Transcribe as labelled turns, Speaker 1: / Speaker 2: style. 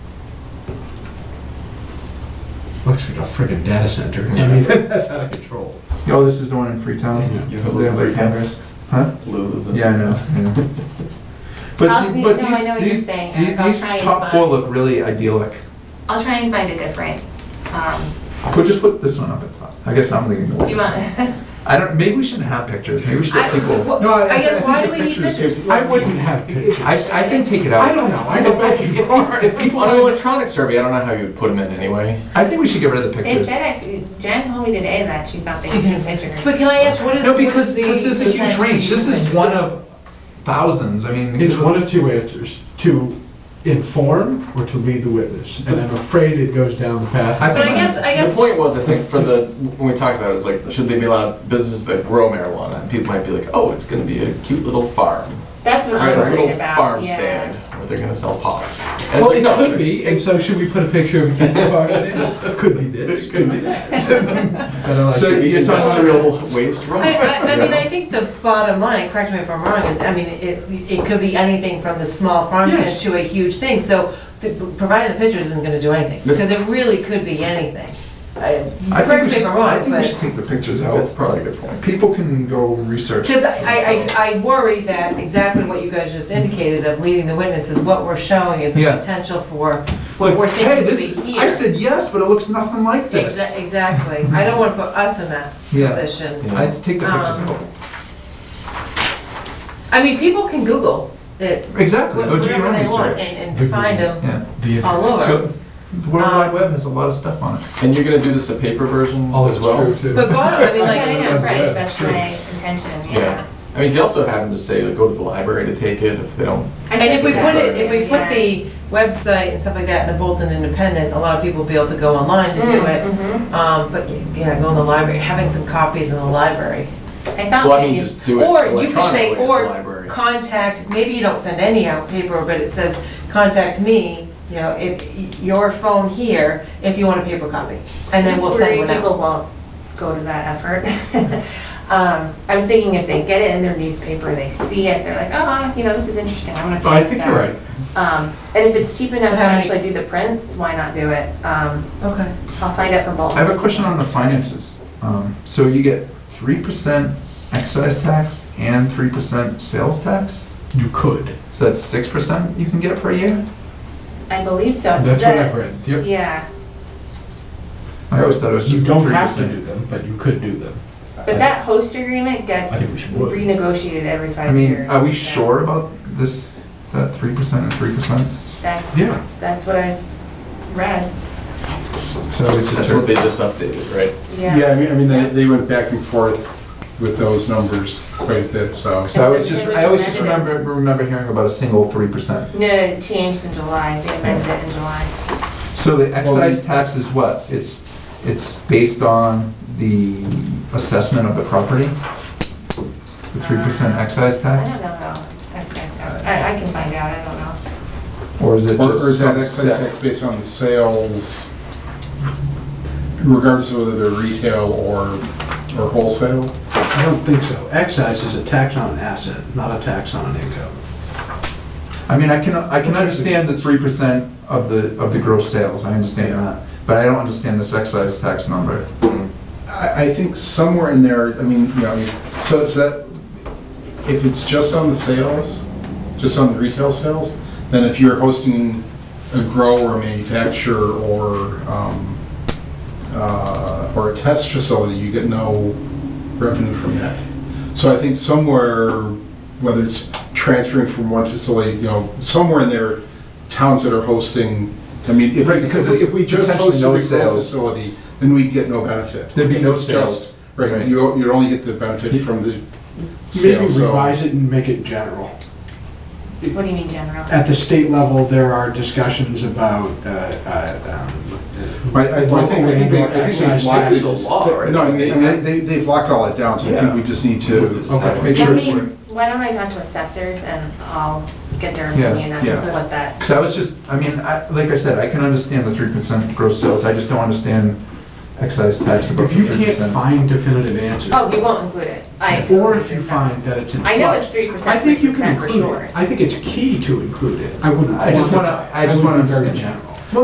Speaker 1: Looks like a friggin' data center. I mean, that's out of control.
Speaker 2: Oh, this is the one in Freetown? They
Speaker 3: You have
Speaker 2: have
Speaker 3: a
Speaker 2: their
Speaker 3: Freetown.
Speaker 2: cameras? Huh?
Speaker 3: Lou.
Speaker 2: Yeah, I know, I know.
Speaker 4: I'll
Speaker 2: But, the-
Speaker 4: be-
Speaker 2: but
Speaker 4: no, I know what you're
Speaker 2: these, these,
Speaker 4: saying.
Speaker 2: the-
Speaker 4: I'll
Speaker 2: these
Speaker 4: try and
Speaker 2: top four
Speaker 4: find-
Speaker 2: look really idyllic.
Speaker 4: I'll try and find a different, um,
Speaker 2: We'll just put this one up at top. I guess I'm leaving the
Speaker 4: do you
Speaker 2: ones.
Speaker 4: want?
Speaker 2: I don't, maybe we shouldn't have pictures, maybe we should let
Speaker 4: I-
Speaker 2: people.
Speaker 4: wh-
Speaker 1: No, I- I
Speaker 4: I guess,
Speaker 1: think
Speaker 4: why
Speaker 1: the
Speaker 4: do we need
Speaker 1: pictures
Speaker 4: this?
Speaker 3: I wouldn't have pictures.
Speaker 5: I, I can take it out.
Speaker 1: I don't know, I go back and forth. If people
Speaker 3: On an
Speaker 1: want
Speaker 3: electronic survey, I don't know how you would put them in anyway.
Speaker 2: I think we should get rid of the
Speaker 4: They
Speaker 2: pictures.
Speaker 4: said, it- Jen told me today that she thought they could do pictures.
Speaker 5: But can I ask, what is,
Speaker 2: No,
Speaker 5: what
Speaker 2: because
Speaker 5: is the?
Speaker 2: this is a
Speaker 5: the time
Speaker 2: huge range,
Speaker 5: frame
Speaker 2: this
Speaker 5: for
Speaker 2: is
Speaker 5: it?
Speaker 2: one of thousands, I mean.
Speaker 6: It's one of two answers, to inform or to lead the witness. And I'm afraid it goes down the path.
Speaker 2: I
Speaker 5: But I
Speaker 2: think,
Speaker 5: guess, I
Speaker 3: The
Speaker 5: guess,
Speaker 3: point was, I think, for the, when we talked about it, was like, should they be allowed businesses that grow marijuana? And people might be like, oh, it's gonna be a cute little farm,
Speaker 4: That's what
Speaker 3: right?
Speaker 4: I'm
Speaker 3: A little
Speaker 4: worried about,
Speaker 3: farm
Speaker 4: yeah.
Speaker 3: stand where they're gonna sell pot. And it's
Speaker 6: Well,
Speaker 3: like,
Speaker 6: it
Speaker 3: no,
Speaker 6: could
Speaker 3: but-
Speaker 6: be, and so should we put a picture of you in? Could be this, could be that. But I like
Speaker 2: So
Speaker 6: it.
Speaker 2: you- you're talking about-
Speaker 3: Industrial waste room.
Speaker 5: I, I, I mean, I think the bottom line, correct me if I'm wrong, is, I mean, it, it could be anything from the small farm stand
Speaker 6: Yes.
Speaker 5: to a huge thing, so the- providing the pictures isn't gonna do anything,
Speaker 3: No.
Speaker 5: because it really could be anything. I-
Speaker 2: I think
Speaker 5: Correct
Speaker 2: we
Speaker 5: me if
Speaker 2: should,
Speaker 5: I'm
Speaker 2: I
Speaker 5: wrong,
Speaker 2: think we should
Speaker 5: but,
Speaker 2: take the pictures
Speaker 3: That's
Speaker 2: out.
Speaker 3: probably a good point.
Speaker 2: People can go research.
Speaker 5: because I,
Speaker 2: themselves.
Speaker 5: I, I worry that exactly what you guys just indicated of leading the witness is what we're showing is the
Speaker 2: Yeah.
Speaker 5: potential for
Speaker 2: Like,
Speaker 5: we're thinking
Speaker 2: hey,
Speaker 5: would
Speaker 2: this,
Speaker 5: be
Speaker 2: I
Speaker 5: here.
Speaker 2: said yes, but it looks nothing like this.
Speaker 5: Exa- Exactly. I don't want to put us in that
Speaker 2: Yeah.
Speaker 5: position.
Speaker 2: I'd take the pictures Oh,
Speaker 5: Um,
Speaker 2: out.
Speaker 5: I mean, people can Google it,
Speaker 2: Exactly, go do your
Speaker 5: whatever
Speaker 2: own
Speaker 5: they want,
Speaker 2: research.
Speaker 5: and and find them
Speaker 2: Yeah.
Speaker 5: all
Speaker 2: So,
Speaker 5: over.
Speaker 2: The World Wide
Speaker 5: Um,
Speaker 2: Web has a lot of stuff on it.
Speaker 3: And you're gonna do this a paper version
Speaker 6: Oh,
Speaker 3: as well?
Speaker 6: it's true, too.
Speaker 5: But bottom, I mean,
Speaker 4: Yeah, I
Speaker 5: like,
Speaker 4: know, right,
Speaker 6: Yeah,
Speaker 4: that's
Speaker 6: true.
Speaker 4: my intention,
Speaker 3: Yeah.
Speaker 4: yeah.
Speaker 3: I mean, you could also have them just say, like, go to the library to take it if they don't
Speaker 5: and if we put it, if we put
Speaker 4: Yeah.
Speaker 5: the website and stuff like that in the Bolton Independent, a lot of people will be able to go online to do it.
Speaker 4: Mhm.
Speaker 5: Um, but yeah, go in the library, having some copies in the library.
Speaker 4: I thought
Speaker 3: Well, I mean,
Speaker 4: maybe-
Speaker 3: just do it
Speaker 5: Or you could
Speaker 3: electronically
Speaker 5: say,
Speaker 3: at the
Speaker 5: or
Speaker 3: library.
Speaker 5: contact, maybe you don't send any out paper, but it says, contact me, you know, if, y- your phone here, if you want a paper copy. And then
Speaker 4: Just
Speaker 5: we'll send
Speaker 4: worried
Speaker 5: one out.
Speaker 4: People won't go to that effort. Um, I was thinking if they get it in their newspaper, they see it, they're like, oh, you know, this is interesting, I'm gonna.
Speaker 6: Oh, I
Speaker 4: check
Speaker 6: think
Speaker 4: this
Speaker 6: you're
Speaker 4: out."
Speaker 6: right.
Speaker 4: Um, and if it's cheap enough to
Speaker 5: How many-
Speaker 4: actually do the prints, why not do it? Um,
Speaker 5: Okay.
Speaker 4: I'll find out from Bolton.
Speaker 2: I have a question on the finances. Um, So you get three percent excise tax and three percent sales tax?
Speaker 6: You could.
Speaker 2: So that's six percent you can get per year?
Speaker 4: I believe so.
Speaker 6: That's what
Speaker 4: The-
Speaker 6: I've read, yep.
Speaker 4: Yeah,
Speaker 2: I always thought it was
Speaker 6: You
Speaker 2: just
Speaker 6: don't
Speaker 2: three
Speaker 6: have to do
Speaker 2: percent.
Speaker 6: them, but you could do them.
Speaker 4: but that host agreement gets
Speaker 6: I think we should work.
Speaker 4: renegotiated every
Speaker 2: I
Speaker 4: five
Speaker 2: mean,
Speaker 4: years.
Speaker 2: are we
Speaker 4: so
Speaker 2: sure about this, that three percent and three percent?
Speaker 4: That's,
Speaker 6: Yeah.
Speaker 4: that's what I've read,
Speaker 2: So it's just.
Speaker 3: That's
Speaker 2: her-
Speaker 3: what they just updated, right?
Speaker 4: yeah.
Speaker 7: I mean, I mean, they, they went back and forth with those numbers quite a bit, so.
Speaker 2: So I was just,
Speaker 4: That's
Speaker 2: I always just
Speaker 4: amended.
Speaker 2: remember, remember hearing about a single three percent.
Speaker 4: No, it changed in July, they amended it in July.
Speaker 2: So the excise tax is what? It's, it's based on the assessment of the property? The three percent excise
Speaker 4: Uh, I
Speaker 2: tax?
Speaker 4: don't know though, that's, that's, I, I can find out, I don't know.
Speaker 2: Or is it
Speaker 7: Or or
Speaker 2: just
Speaker 7: is that
Speaker 2: some
Speaker 7: excise
Speaker 2: set?
Speaker 7: tax based on the sales, regardless of whether they're retail or, or wholesale?
Speaker 6: I don't think so. Excise is a tax on an asset, not a tax on an income.
Speaker 2: I mean, I can, I can understand the three percent of the, of the gross sales, I understand that, but I don't understand this excise tax number.
Speaker 7: I, I think somewhere in there, I mean, you know, I mean, so, so that, if it's just on the sales, just on the retail sales, then if you're hosting a grow or a manufacturer or, um, uh, or a test facility, you get no revenue from that. So I think somewhere, whether it's transferring from one facility, you know, somewhere in there, towns that are hosting, I mean, if we,
Speaker 2: Right, because
Speaker 7: if we-
Speaker 2: it's
Speaker 7: if we just
Speaker 2: potentially
Speaker 7: hosted
Speaker 2: no
Speaker 7: a grow
Speaker 2: sales.
Speaker 7: facility, then we'd get no benefit.
Speaker 2: There'd be
Speaker 7: If
Speaker 2: no
Speaker 7: it's
Speaker 2: sales.
Speaker 7: just- Right,
Speaker 2: Right.
Speaker 7: you, you'd only get the benefit from the
Speaker 6: Maybe
Speaker 7: sale, so.
Speaker 6: revise it and make it general.
Speaker 4: What do you mean general?
Speaker 6: At the state level, there are discussions about, uh, uh, um,
Speaker 7: I, I I think, I think they, I think they've
Speaker 6: Excise
Speaker 7: locked.
Speaker 6: tax
Speaker 3: is a law, right?
Speaker 7: No, I mean, they- I mean, they, they've locked all that down, so I think
Speaker 3: Yeah.
Speaker 7: we just need
Speaker 3: We'll
Speaker 7: to
Speaker 3: just decide.
Speaker 4: Let
Speaker 7: make sure it's
Speaker 4: me,
Speaker 7: working.
Speaker 4: why don't I talk to assessors and I'll get their
Speaker 2: Yeah,
Speaker 4: opinion on
Speaker 7: yeah.
Speaker 4: what that,
Speaker 2: Because I was just, I mean, I, like I said, I can understand the three percent gross sales, I just don't understand excise tax above
Speaker 6: If
Speaker 2: three
Speaker 6: you can't
Speaker 2: percent.
Speaker 6: find definitive answers,
Speaker 4: oh, we won't include it. I-
Speaker 6: or if you find that it's in flux.
Speaker 4: I know it's three percent,
Speaker 6: I think you can
Speaker 4: for
Speaker 6: include
Speaker 4: sure.
Speaker 6: it. I think it's key to include it. I wouldn't.
Speaker 2: I just wanna-
Speaker 6: quantify it.
Speaker 2: I just
Speaker 6: would
Speaker 2: wanna
Speaker 6: be Very
Speaker 2: understand.
Speaker 6: general.